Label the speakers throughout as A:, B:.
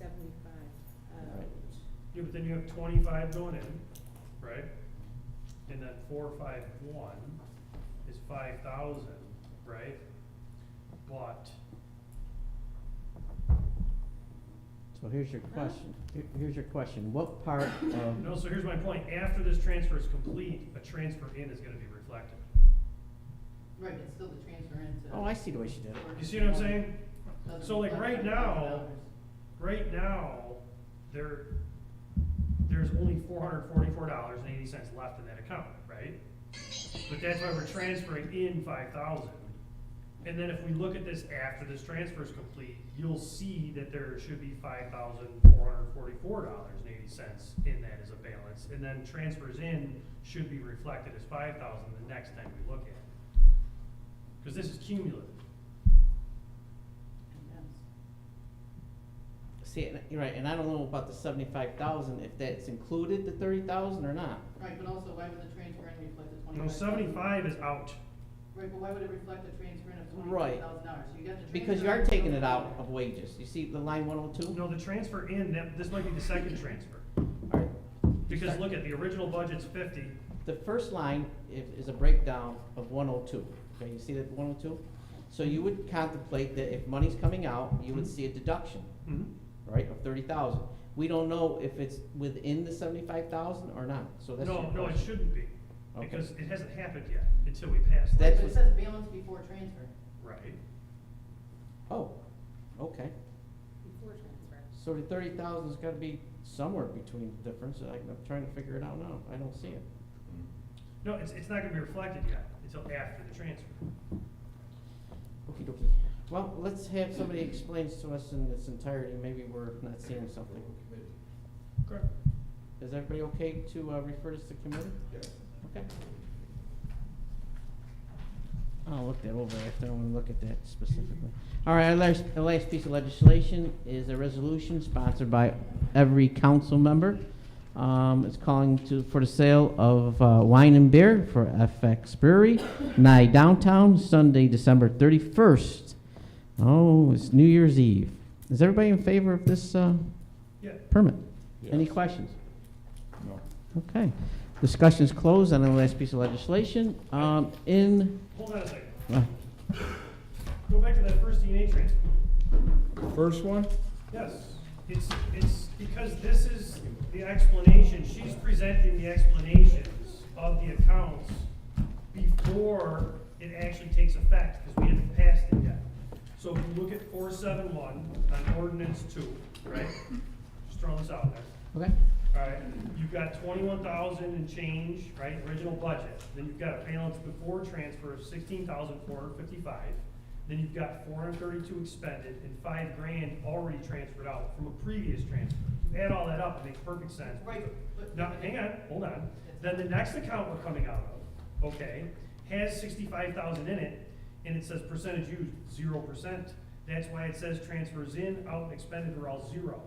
A: uh,
B: Yeah, but then you have twenty-five going in, right? And then four, five, one is five thousand, right? But,
C: So here's your question, Here- here's your question, what part of,
B: no, so here's my point, after this transfer is complete, a transfer in is gonna be reflected.
D: Right, it's still the transfer into.
C: oh, I see the way she did it.
B: You see what I'm saying? So, like, right now- Right now, there, there's only four hundred forty-four dollars and eighty cents left in that account, right? But that's why we're transferring in five thousand. And then if we look at this after this transfer is complete, you'll see that there should be five thousand four hundred forty-four dollars and eighty cents in that as a balance. And then transfers in should be reflected as five thousand the next time we look at it. Cause this is cumulative.
C: See, and- you're right, and I don't know about the seventy-five thousand, if that's included, the thirty thousand or not.
D: Right, but also, why would the transfer in reflect the
B: You know,
D: twenty-five?
B: seventy-five is out.
D: Right, but why would it reflect the transfer in of
C: Right.
D: twenty-five thousand dollars? You got the transfer.
C: Because you
D: in
C: are
D: of
C: taking it out
D: 25,000.
C: of wages, you see the line one oh two?
B: No, the transfer in, that, this might be the second transfer.
C: Alright,
B: Because look at, the original budget's fifty,
C: the first line is, is a breakdown of one oh two, okay, you see that one oh two? So you would contemplate that if money's coming out, you would
B: Mm-hmm.
C: see a deduction, right, of thirty thousand. We don't know if it's within the seventy-five thousand or not, so that's your
B: no, no, it
C: question.
B: shouldn't be,
C: Okay.
B: because it hasn't happened yet, until we pass that,
D: Right,
C: That's
D: But
C: what-
D: it says balance before transfer.
B: right?
C: Oh, okay.
A: Before transfer.
C: So the thirty thousand's gotta be somewhere between the difference, I- I'm trying to figure it out now, I don't see it.
B: No, it's, it's not gonna be reflected yet, until after the transfer.
C: Okey dokey. Well, let's have somebody explains to us in its entirety, maybe we're not seeing something.
B: Correct.
C: Is everybody okay to, uh, refer this to committee? Okay. I'll look that over after, I wanna look at that specifically. All right, our last, the last piece of legislation is a resolution sponsored by every council member. Um, it's calling to, for the sale of, uh, wine and beer for FX Brewery, nigh downtown, Sunday, December thirty-first. Oh, it's New Year's Eve. Is everybody in favor of this, uh,
B: Yeah,
C: permit? Any questions?
E: No.
C: Okay. Discussion is closed on the last piece of legislation. Um, in,
B: hold on a second,
C: uh,
B: go back to that first DNA transfer.
E: First one?
B: Yes, it's, it's because this is the explanation, she's presenting the explanations of the accounts before it actually takes effect, because we haven't passed it yet. So if you look at four seven one on ordinance two, right? Just throwing this out there.
C: okay,
B: Alright, you've got twenty-one thousand and change, right, original budget, then you've got a balance before transfer of sixteen thousand four hundred fifty-five. Then you've got four hundred thirty-two expended and five grand already transferred out from a previous transfer. You Add all that up, it makes perfect sense.
D: Right, but.
B: Now, hang on, hold on, then the next account we're coming out of, okay, has sixty-five thousand in it, and it says percentage used, zero percent. That's why it says transfers in, out, and expended are all zero.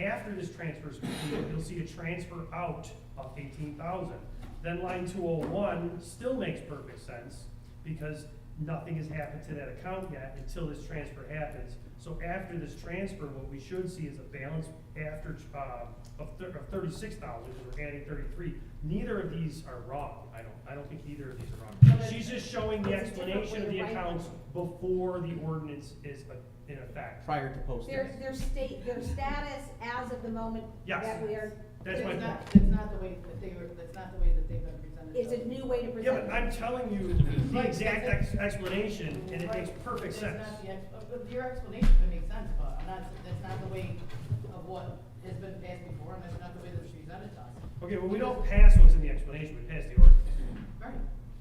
B: After this transfer is completed, you'll see a transfer out of eighteen thousand. Then line two oh one still makes perfect sense, because nothing has happened to that account yet until this transfer happens. So after this transfer, what we should see is a balance after, uh, of thir- of thirty-six thousand, because we're adding thirty-three. Neither of these are wrong, I don't, I don't think either of these are
D: No,
B: wrong.
D: but-
B: She's just showing the
A: It's a different
B: explanation of
A: way
B: the
A: to write
B: accounts before the ordinance is uh, in effect.
C: prior to posting.
A: Their, their state, their status as of the moment
B: Yes.
A: that we are,
B: That's my
D: It's
B: point.
D: not, it's not the way that they were, that's not the way that they've been presented.
A: is a
D: it?
A: new way to
B: Yeah, but
A: present. it.
B: I'm telling you the exact ex- explanation, and it makes perfect sense.
D: That's not the, ex- uh, but your explanation would make sense, but I'm not, that's not the way of what has been passed before, and that's not the way that's presented to us.
B: Okay, well, we don't pass what's in the explanation, we pass the ordinance.
D: Right.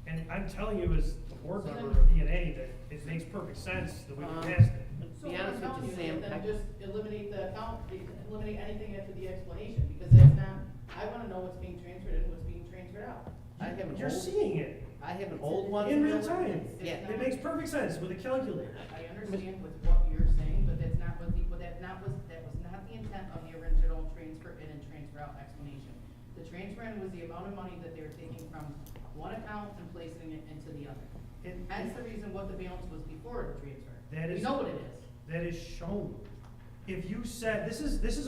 B: And I'm telling you as a board member of DNA that it makes perfect sense that we
C: Um,
B: can pass it.
D: So
C: Be
D: what
C: honest
D: I'm
C: with
D: telling
C: you,
D: is
C: Sam,
D: Then
C: I-
D: just eliminate the account, eliminate anything after the explanation, because that's not, I wanna know what's being transferred and what's being transferred out.
C: I have an
B: You're
C: old,
B: seeing it
C: I have an old one.
B: in real time.
C: Yeah.
D: It's
B: It
D: not-
B: makes perfect sense with a calculator.
D: I understand with what you're saying, but that's not what the, but that not was, that was not the intent of the original transfer in and transfer out explanation. The transfer in was the amount of money that they were taking from one account and placing it into the other.
B: And
D: Hence the reason what the balance was before the transfer.
B: That
D: We
B: is-
D: know what it is.
B: that is shown. If you said, this is, this is a